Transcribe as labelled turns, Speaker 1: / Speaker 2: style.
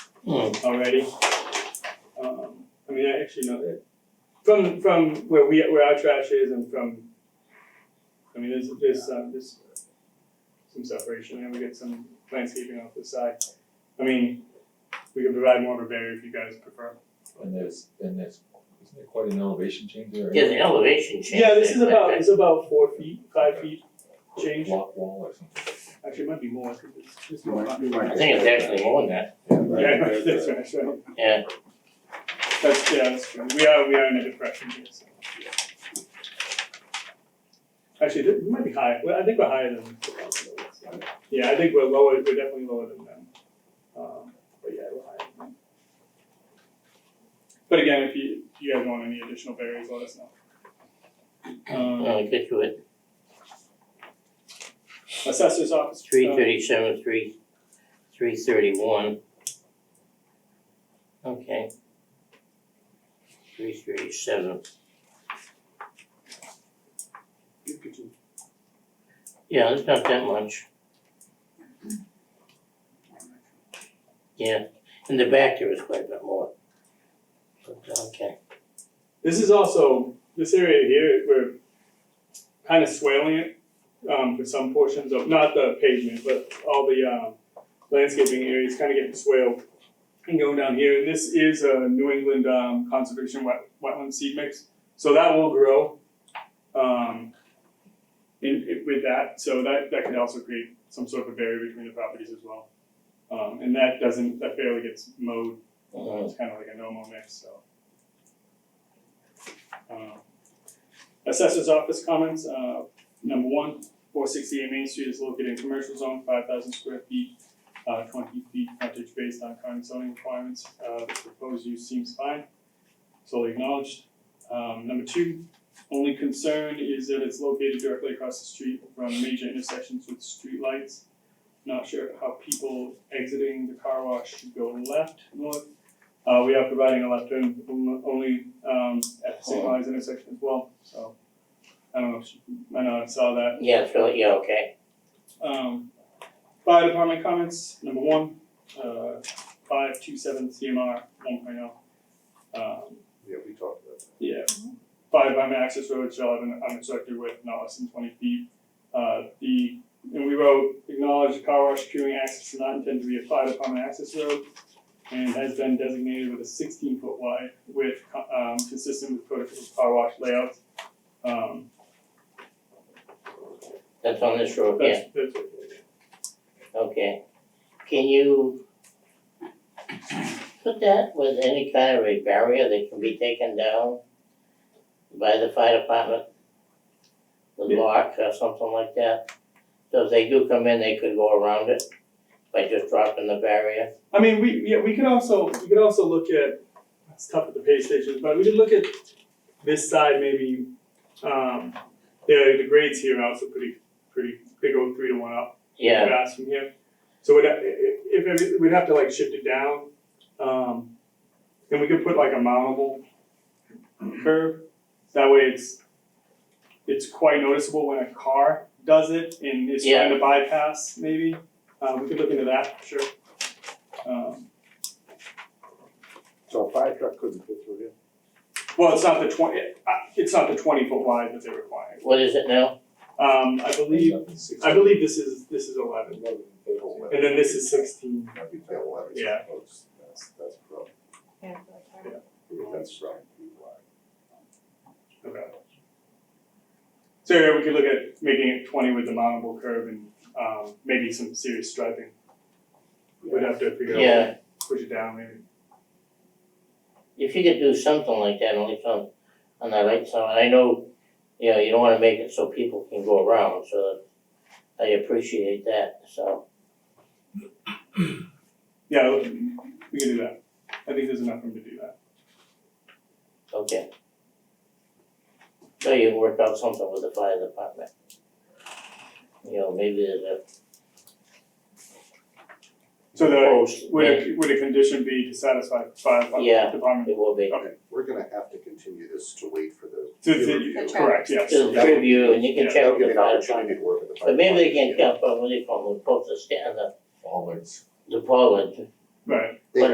Speaker 1: Oh, already. Um, I mean, I actually know that from from where we where our trash is and from, I mean, there's there's um, there's some separation and we get some landscaping off the side. I mean, we can provide more of a barrier if you guys prefer.
Speaker 2: And there's, and there's, isn't there quite an elevation change there?
Speaker 3: Yeah, the elevation change.
Speaker 1: Yeah, this is
Speaker 3: that- that-
Speaker 1: about it's about four feet, five feet change.
Speaker 2: Block wall or something.
Speaker 1: Actually, it might be more because it's just
Speaker 4: You might- you might-
Speaker 3: I think it's actually more than that,
Speaker 1: Yeah, that's right, that's right.
Speaker 3: yeah,
Speaker 1: That's yeah, that's true. We are we are in a depression here, so. Actually, th- we might be higher. Well, I think we're higher than. Yeah, I think we're lower. We're definitely lower than them. Um, but yeah, we're higher. Than them. But again, if you if you guys want any additional barriers, let us know. Um,
Speaker 3: I'll get to it,
Speaker 1: assessor's office.
Speaker 3: three
Speaker 1: uh,
Speaker 3: thirty-seven, three, three thirty-one. Okay. Three thirty-seven,
Speaker 1: you could do-
Speaker 3: yeah, it's not that much, yeah, in the back there is quite a bit more. But, okay,
Speaker 1: This is also this area here. We're kind of swaling it um, for some portions of not the pavement, but all the um, landscaping areas kind of getting swaled and going down here. And this is a New England um, conservation wet, wetland seed mix, so that will grow um, in, in- with that. So that that could also create some sort of a barrier between the properties as well. Um, and that doesn't that barely gets mowed. Uh, it's kind of like a normal mix, so. Um, Assessors office comments, uh, number one, four sixty-eight Main Street is located in commercial zone, five thousand square feet, uh, twenty feet frontage based on current zoning requirements, uh, the proposed use seems fine, solely acknowledged. Um, number two, only concern is that it's located directly across the street from major intersections with streetlights. Not sure how people exiting the car wash should go left, north. Uh, we are providing a left turn only, um, at the St. Mary's intersection as well, so. I don't know if, you- I know I saw that,
Speaker 3: yeah, so, yeah, okay,
Speaker 1: um, fire department comments, number one, uh, five two seven CMR one oh. Um,
Speaker 4: Yeah, we talked about that.
Speaker 1: yeah, fire department access road shall have an unobstructed width not less than twenty feet. Uh, the, and we wrote, acknowledge the car wash queuing access is not intended to be a fire department access road and has been designated with a sixteen foot wide width, co- um, consistent with prototypical car wash layouts. Um,
Speaker 3: that's on this road, yeah,
Speaker 1: that's, that's what we're doing.
Speaker 3: okay. Can you put that with any kind of a barrier that can be taken down by the fire department? The
Speaker 1: Yeah.
Speaker 3: lock or something like that, so if they do come in, they could go around it by just dropping the barrier,
Speaker 1: I mean, we, yeah, we could also, we could also look at, it's tough at the pay stations, but we could look at this side maybe, um, the, the grades here are also pretty, pretty, they go three to one up
Speaker 3: yeah.
Speaker 1: fast from here. So we'd, ha- i- i- if, every- we'd have to like shift it down, um, and we could put like a mountable curve. That way it's, it's quite noticeable when a car does it and is trying to bypass maybe. Uh, we could look into that, for sure. Um,
Speaker 4: So a fire truck couldn't fit through here?
Speaker 1: well, it's not the twenty, uh, it's not the twenty foot wide that they're requiring.
Speaker 3: What is it now?
Speaker 1: Um, I believe, I believe this is, this is eleven, and then this is sixteen.
Speaker 4: That'd be tail eleven.
Speaker 1: Yeah.
Speaker 4: That's, that's probably,
Speaker 5: Yeah, like that.
Speaker 4: that's probably too wide.
Speaker 1: Okay. So yeah, we could look at making it twenty with the mountable curve and um maybe some serious striping. We'd have to figure out,
Speaker 3: Yeah,
Speaker 1: push it down maybe.
Speaker 3: if you could do something like that, only on, on the right side, I know, you know, you don't wanna make it so people can go around, so I appreciate that, so,
Speaker 1: Yeah, we can we can do that. I think there's enough room to do that.
Speaker 3: okay. So you work out something with the fire department. You know, maybe there's
Speaker 1: So
Speaker 3: a
Speaker 1: the
Speaker 3: post,
Speaker 1: would
Speaker 3: yeah,
Speaker 1: a would a condition be to satisfy fire
Speaker 3: Yeah.
Speaker 1: department department?
Speaker 3: it will be,
Speaker 1: Okay.
Speaker 4: We're gonna have to continue this to wait for the.
Speaker 1: To
Speaker 4: peer
Speaker 1: to-
Speaker 4: review.
Speaker 5: The check.
Speaker 1: correct, yes.
Speaker 3: to the
Speaker 4: Yeah.
Speaker 3: review, and you
Speaker 1: Yeah,
Speaker 3: can check
Speaker 4: We'll
Speaker 3: with
Speaker 4: Get
Speaker 3: the
Speaker 4: an
Speaker 3: fire
Speaker 4: opportunity
Speaker 3: department.
Speaker 4: to work with the fire.
Speaker 3: But maybe they can
Speaker 4: department.
Speaker 3: come from, what do you call them, the post, the stand, the,
Speaker 2: Bollards.
Speaker 3: the pollen,
Speaker 1: Right.
Speaker 4: They